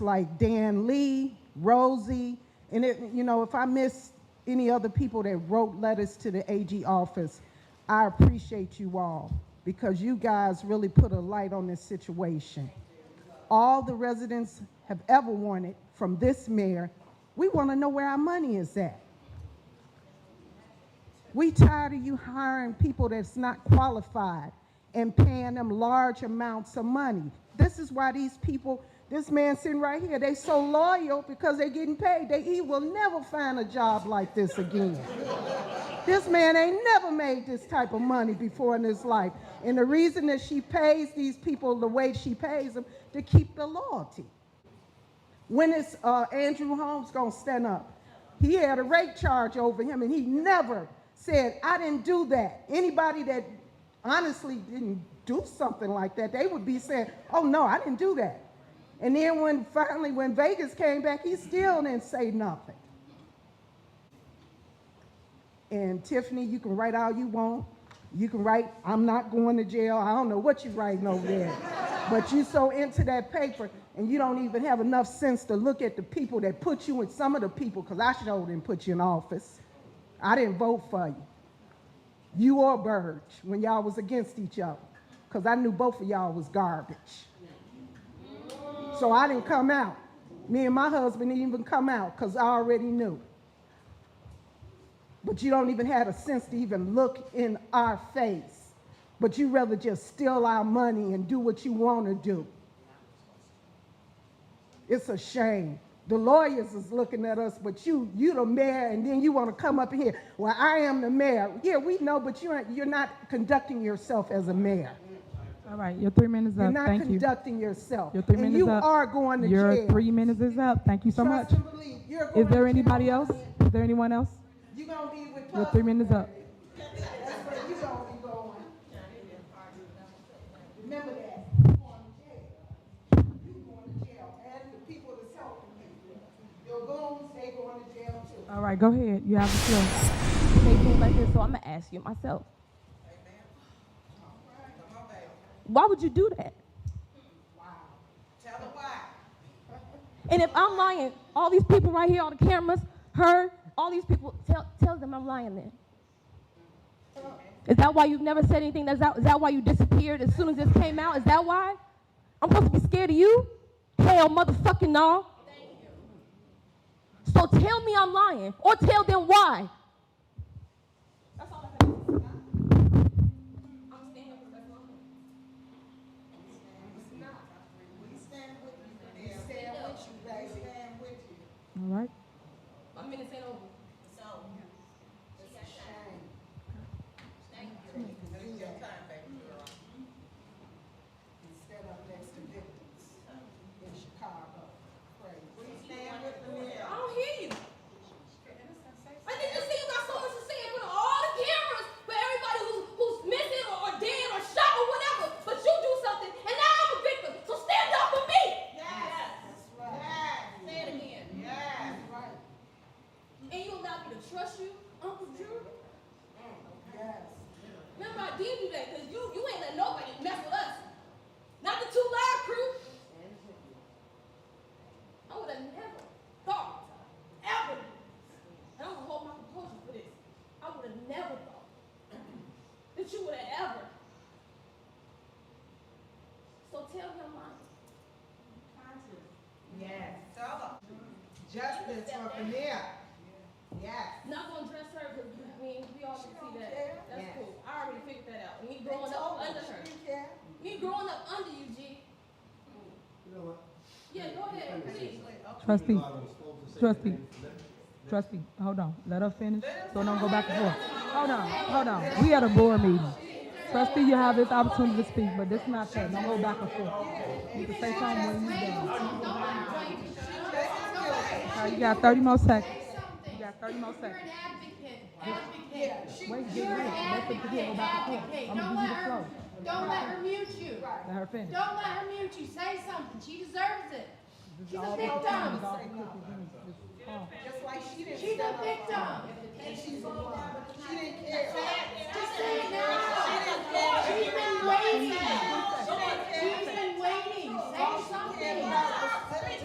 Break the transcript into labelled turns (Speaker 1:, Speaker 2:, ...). Speaker 1: like Dan Lee, Rosie, and it, you know, if I miss any other people that wrote letters to the AG office, I appreciate you all because you guys really put a light on this situation. All the residents have ever wanted from this mayor, we want to know where our money is at. We tired of you hiring people that's not qualified and paying them large amounts of money. This is why these people, this man sitting right here, they so loyal because they're getting paid. They, he will never find a job like this again. this man ain't never made this type of money before in his life. And the reason that she pays these people the way she pays them to keep the loyalty. When is uh, Andrew Holmes gonna stand up? He had a rape charge over him, and he never said, "I didn't do that." Anybody that honestly didn't do something like that, they would be saying, "Oh no, I didn't do that." And then when finally when Vegas came back, he still didn't say nothing. And Tiffany, you can write all you want. You can write, I'm not going to jail. I don't know what you're writing over there. but you so into that paper and you don't even have enough sense to look at the people that put you in some of the people, because I sure didn't put you in office. I didn't vote for you. You or Burge when y'all was against each other. Because I knew both of y'all was garbage. So I didn't come out. Me and my husband didn't even come out because I already knew but you don't even have a sense to even look in our face. But you rather just steal our money and do what you want to do. It's a shame. The lawyers is looking at us, but you, you the mayor, and then you want to come up here. Well, I am the mayor. Yeah, we know, but you ain't, you're not conducting yourself as a mayor.
Speaker 2: All right, your three minutes
Speaker 1: You're
Speaker 2: up.
Speaker 1: not
Speaker 2: Thank you.
Speaker 1: conducting yourself.
Speaker 2: Your three
Speaker 1: and
Speaker 2: minutes
Speaker 1: you
Speaker 2: up.
Speaker 1: are going to
Speaker 2: Your
Speaker 1: jail.
Speaker 2: three minutes is up. Thank you so much.
Speaker 1: Trust and believe, you're going
Speaker 2: Is
Speaker 1: to
Speaker 2: there
Speaker 1: jail.
Speaker 2: anybody else? Is there anyone else?
Speaker 1: You're going to be with
Speaker 2: Your three minutes up.
Speaker 1: That's where you gonna be going. Remember that, you going to jail. You going to jail, and the people that's helping you. Your goons, they going to jail too.
Speaker 2: All right, go ahead. You have the floor.
Speaker 3: say things like this, so I'm gonna ask you myself. Why would you do that? And if I'm lying, all these people right here, all the cameras, her, all these people, tell, tell them I'm lying then. Is that why you've never said anything? Is that, is that why you disappeared as soon as this came out? Is that why? I'm supposed to be scared of you? Hell, motherfucking no. So tell me I'm lying, or tell them why.
Speaker 2: All right.
Speaker 3: My minute's ain't over.
Speaker 1: Instead of next to victims in Chicago, crazy.
Speaker 3: I don't hear you. I think you see you got so much to say in front of all the cameras for everybody who's, who's missing or, or dead or shot or whatever, but you do something, and now I'm a victim. So stand up for me. Say it again.
Speaker 1: Right,
Speaker 3: And you allowed me to trust you, Uncle Drew?
Speaker 1: yes.
Speaker 3: Remember, I did do that because you, you ain't let nobody mess with us. Not the two live crew. I would have never thought, ever. And I'm gonna hold my composure for this. I would have never thought that you would have ever. So tell him mine.
Speaker 1: Yes. Justice for Vanilla. Yes.
Speaker 3: Not gonna dress her because I mean we all can see that. That's
Speaker 1: Yes.
Speaker 3: cool. I already figured that out. Me growing up under her. Me growing up under you, G. Yeah, go ahead, please.
Speaker 2: Trustee, trustee, trustee, hold on. Let her finish, so don't go back and forth. Hold on, hold on. We at a board meeting. Trustee, you have this opportunity to speak, but this is not fair. Don't go back and forth. You can say something when you're done. All right, you got thirty more seconds. You got thirty more seconds.
Speaker 4: advocate, advocate.
Speaker 2: Wait, wait, wait.
Speaker 4: You're an
Speaker 2: Let them
Speaker 4: advocate,
Speaker 2: go back and forth.
Speaker 4: advocate.
Speaker 2: I'm
Speaker 4: Don't
Speaker 2: gonna
Speaker 4: let
Speaker 2: give you the
Speaker 4: her,
Speaker 2: floor.
Speaker 4: don't let her mute you. Don't
Speaker 2: Let her finish.
Speaker 4: let her mute you. Say something. She deserves it. She's a victim.
Speaker 1: Just like she didn't.
Speaker 4: She's a
Speaker 1: stand up.
Speaker 4: victim.
Speaker 1: She didn't care.
Speaker 4: Just say